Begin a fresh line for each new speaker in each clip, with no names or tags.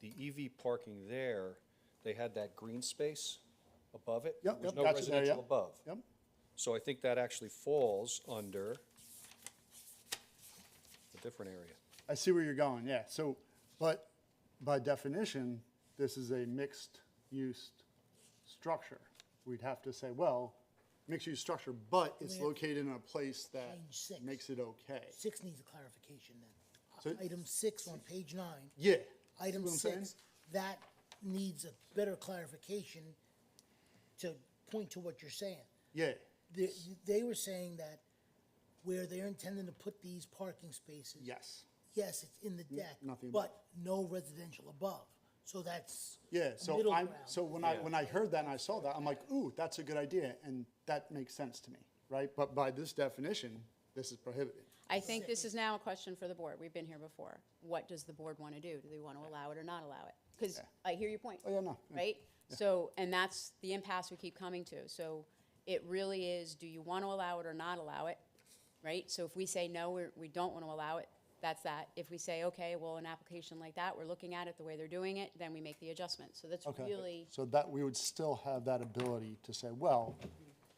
the EV parking there, they had that green space above it.
Yep,
There was
yep,
no
got you there,
residential
yep.
above.
Yep,
So I think that actually falls under a different area.
I see where you're going, yeah, so, but by definition, this is a mixed-use structure. We'd have to say, well, mixed-use structure, but it's located in a place that
Change six.
makes it okay.
Six needs a clarification then.
Uh, So-
Item six on page nine,
Yeah.
item
what I'm saying?
six, that needs a better clarification to point to what you're saying.
Yeah,
They, they were saying that where they're intending to put these parking spaces.
yes,
Yes, it's in the deck,
nothing above.
but no residential above. So that's.
yeah,
a
so
middle
I'm,
ground.
so when I, when I heard that and I saw that, I'm like, ooh, that's a good idea, and that makes sense to me, right? But by this definition, this is prohibited.
I think this is now a question for the board. We've been here before. What does the board want to do? Do they want to allow it or not allow it? Because I hear your point.
Oh, yeah, no, yeah,
Right? So, and that's the impasse we keep coming to. So it really is, do you want to allow it or not allow it? Right? So if we say no, we're, we don't want to allow it, that's that. If we say, okay, well, an application like that, we're looking at it the way they're doing it, then we make the adjustment. So that's
Okay.
really,
So that, we would still have that ability to say, well,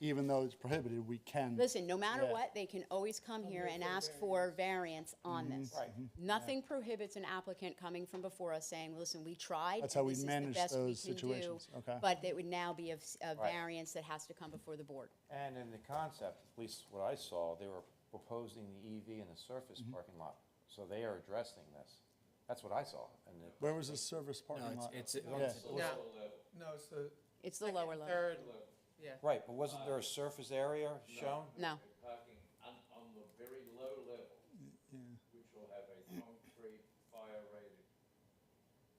even though it's prohibited, we can.
listen, no matter
Yeah.
what, they can always come here and ask for variance Mm-hmm. on
Mm-hmm.
this. Nothing prohibits an applicant coming from before us saying, listen, we tried.
That's how we
this is the
manage
best we
those
can do,
situations. Okay.
But it would now be a, s- a
Right.
variance that has to come before the board.
And in the concept, at least what I saw, they were proposing the EV in the surface parking lot. So they are addressing this. That's what I saw. And the-
Where was the service parking lot?
It's,
Yeah.
it's,
No, no, it's the.
It's the lower level.
Third level, yeah.
Right, but wasn't there a surface area shown?
No.
parking on, on the very low level, which will have a concrete, fire-rated,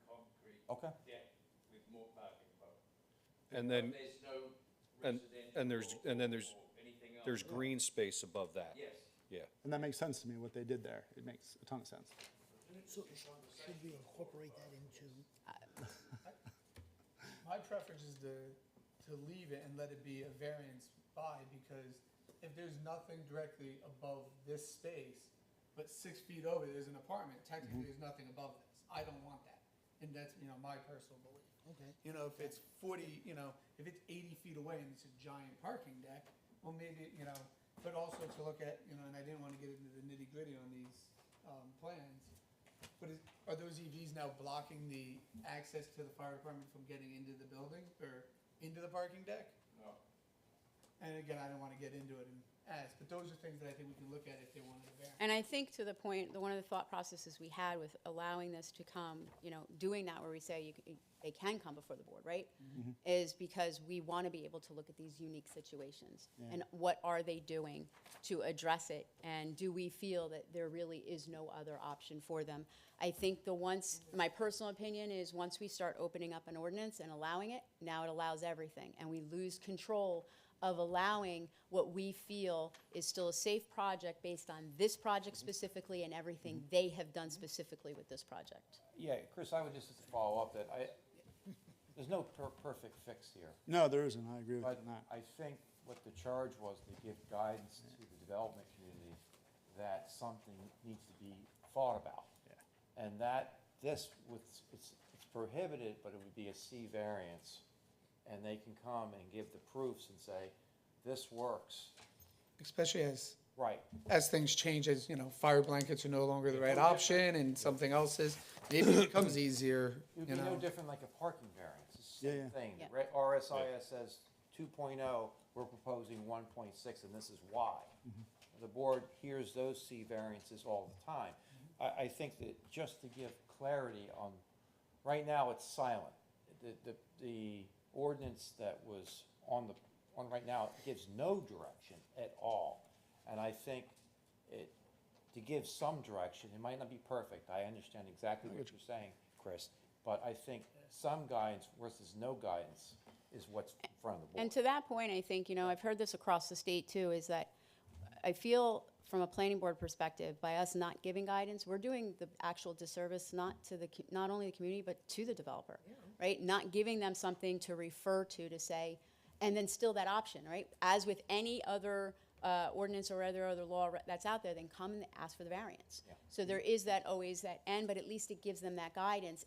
concrete
Okay.
deck with more parking above. it.
And then,
But There's no
and,
residential.
and there's,
or-
and then there's,
or anything else.
there's green space above that.
Yes.
Yeah.
And that makes sense to me, what they did there. It makes a ton of sense.
So should we incorporate that into?
My preference is to, to leave it and let it be a variance by, because if there's nothing directly above this space, but six feet over, there's an apartment, technically, there's nothing above this. I don't want that. And that's, you know, my personal belief.
Okay.
You know, if it's forty, you know, if it's eighty feet away and it's a giant parking deck, well, maybe, you know, but also to look at, you know, and I didn't wanna get into the nitty gritty on these, um, plans. But is, are those EVs now blocking the access to the fire department from getting into the building or into the parking deck?
No.
And again, I don't wanna get into it and ask, but those are things that I think we can look at if they wanted to vary.
And I think to the point, the, one of the thought processes we had with allowing this to come, you know, doing that where we say you, c- they can come before the board, right? Is because we want to be able to look at these unique situations. And what are they doing to address it? And do we feel that there really is no other option for them? I think the once, my personal opinion is, once we start opening up an ordinance and allowing it, now it allows everything. And we lose control of allowing what we feel is still a safe project based on this project specifically and everything they have done specifically with this project.
Yeah, Chris, I would just follow up that I, there's no per- perfect fix here.
No, there isn't. I agree with you
But
on that.
I think what the charge was to give guidance to the development community that something needs to be thought about. And that, this, was it's it's prohibited, but it would be a C variance. And they can come and give the proofs and say, this works,
Especially as
right.
as things change, as you know, fire blankets are no longer the right option and something else is, maybe it becomes easier,
It would
you
be no
know.
different like a parking variance, it's the
Yeah, yeah.
same thing.
Yeah.
Re- RSIS says two oh, we're proposing one point six, and this is why. The board hears those C variances all the time. I, I think that just to give clarity on, right now, it's silent. The, the, the ordinance that was on the, on right now gives no direction at all. And I think it, to give some direction, it might not be perfect, I understand exactly what you're saying, Chris, but I think some guidance versus no guidance is what's in front of the board.
And to that point, I think, you know, I've heard this across the state too, is that I feel from a planning board perspective, by us not giving guidance, we're doing the actual disservice not to the, co- not only the community, but to the developer, right? Not giving them something to refer to, to say, and then still that option, right? As with any other uh, ordinance or other, other law re- that's out there, then come and ask for the variance. So there is that always that end, but at least it gives them that guidance